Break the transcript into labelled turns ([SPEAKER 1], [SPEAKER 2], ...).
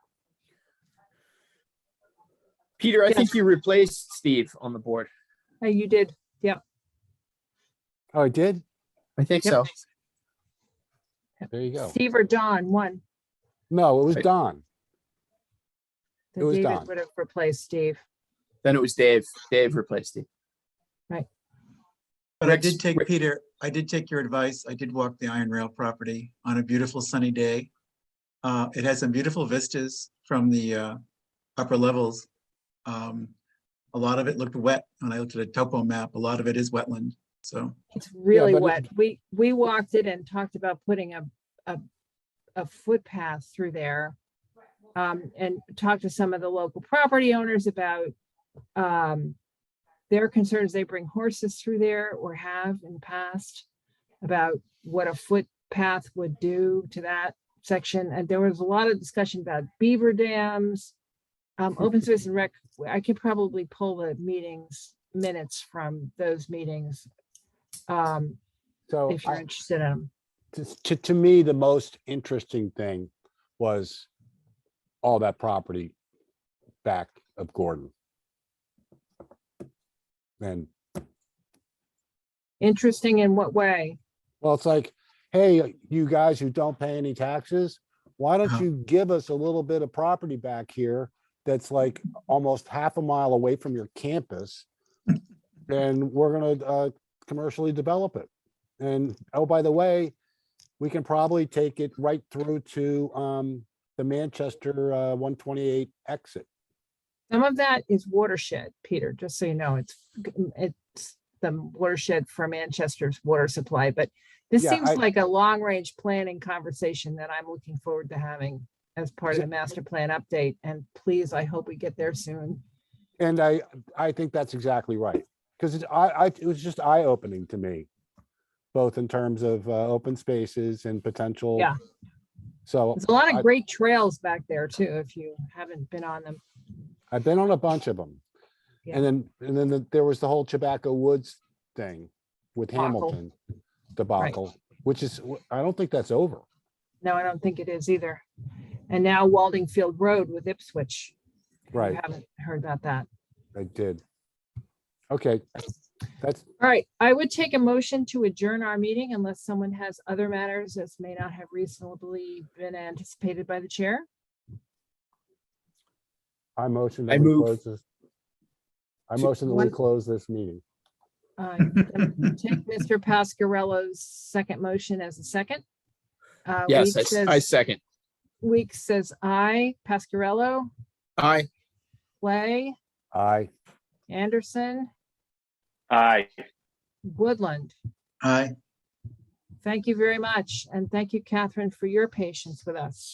[SPEAKER 1] Peter, I
[SPEAKER 2] Yes.
[SPEAKER 1] think you replaced Steve on the board.
[SPEAKER 2] Uh, You did.
[SPEAKER 3] Oh, I did?
[SPEAKER 1] I think
[SPEAKER 2] Yep.
[SPEAKER 1] so.
[SPEAKER 3] There you go.
[SPEAKER 2] Steve or Don, one.
[SPEAKER 3] No, it was
[SPEAKER 1] Right.
[SPEAKER 3] Don.
[SPEAKER 2] Then
[SPEAKER 3] It was
[SPEAKER 2] David
[SPEAKER 3] Don.
[SPEAKER 2] Would have replaced Steve.
[SPEAKER 1] Then it was Dave. Dave replaced Steve.
[SPEAKER 4] But I
[SPEAKER 1] Rick's-
[SPEAKER 4] did take,
[SPEAKER 1] Rick-
[SPEAKER 4] Peter, I did take your advice. I did walk the iron rail property on a beautiful sunny day. Uh, it has some beautiful vistas from the, uh, upper levels. Um, a lot of it looked wet. When I looked at a topo map, a lot of it is wetland, so.
[SPEAKER 2] It's really
[SPEAKER 3] but it-
[SPEAKER 2] wet. We, we walked it and talked about putting a, a, a footpath through there. Um, and talked to some of the local property owners about, um, their concerns. They bring horses through there or have in the past about what a footpath would do to that section. And there was a lot of discussion about beaver dams. Um, open space and rec, I could probably pull the meetings minutes from those meetings. Um,
[SPEAKER 3] So
[SPEAKER 2] if you're
[SPEAKER 3] I-
[SPEAKER 2] interested in 'em.
[SPEAKER 3] to- to, to me, the most interesting thing was all that property back of Gordon. And
[SPEAKER 2] Interesting in what way?
[SPEAKER 3] Well, it's like, hey, you guys who don't pay any taxes, why don't
[SPEAKER 4] Uh-huh.
[SPEAKER 3] you give us a little bit of property back here that's like almost half a mile away from your campus? And we're gonna uh commercially develop it. And oh, by the way, we can probably take it right through to um the Manchester uh one twenty-eight exit.
[SPEAKER 2] Some of that is watershed, Peter, just so you know, it's, mm, it's the watershed for Manchester's water supply, but this
[SPEAKER 3] Yeah,
[SPEAKER 2] seems
[SPEAKER 3] I-
[SPEAKER 2] like a long-range planning conversation that I'm looking forward to having as part of
[SPEAKER 3] Yeah.
[SPEAKER 2] the master plan update, and please, I hope we get there soon.
[SPEAKER 3] And I, I think that's exactly right, because I, I, it was just eye opening to me. Both in terms of uh, open spaces and potential.
[SPEAKER 2] Yeah.
[SPEAKER 3] So
[SPEAKER 2] There's a lot
[SPEAKER 3] I-
[SPEAKER 2] of great trails back there too, if you haven't been on them.
[SPEAKER 3] I've been on a bunch of them.
[SPEAKER 2] Yeah.
[SPEAKER 3] And then, and then the- there was the whole tobacco woods thing with
[SPEAKER 2] Debacle.
[SPEAKER 3] Hamilton debacle, which is, w- I don't think that's over.
[SPEAKER 2] No, I don't think it is either. And now Waldingfield Road with Ipswich. if you
[SPEAKER 3] Right,
[SPEAKER 2] Haven't heard about that.
[SPEAKER 3] I did. Okay, that's,
[SPEAKER 2] All right, I would take a motion to adjourn our meeting unless someone has other matters that may not have reasonably been anticipated by the chair.
[SPEAKER 3] I motion.
[SPEAKER 1] I
[SPEAKER 3] that we
[SPEAKER 1] move
[SPEAKER 3] close this- I
[SPEAKER 1] to-
[SPEAKER 3] motion that we
[SPEAKER 2] one-
[SPEAKER 3] close this meeting.
[SPEAKER 2] Uh, Take Mr. Pascarello's second motion as a second. Uh,
[SPEAKER 1] Yes,
[SPEAKER 2] Weeks
[SPEAKER 1] I s-
[SPEAKER 2] says-
[SPEAKER 1] I second.
[SPEAKER 2] Weeks says aye. Pascarello,
[SPEAKER 1] Aye.
[SPEAKER 2] Clay,
[SPEAKER 3] Aye.
[SPEAKER 2] Anderson,
[SPEAKER 5] Aye.
[SPEAKER 2] Woodland.
[SPEAKER 4] Aye.
[SPEAKER 2] Thank you very much. And thank you, Catherine, for your patience with us.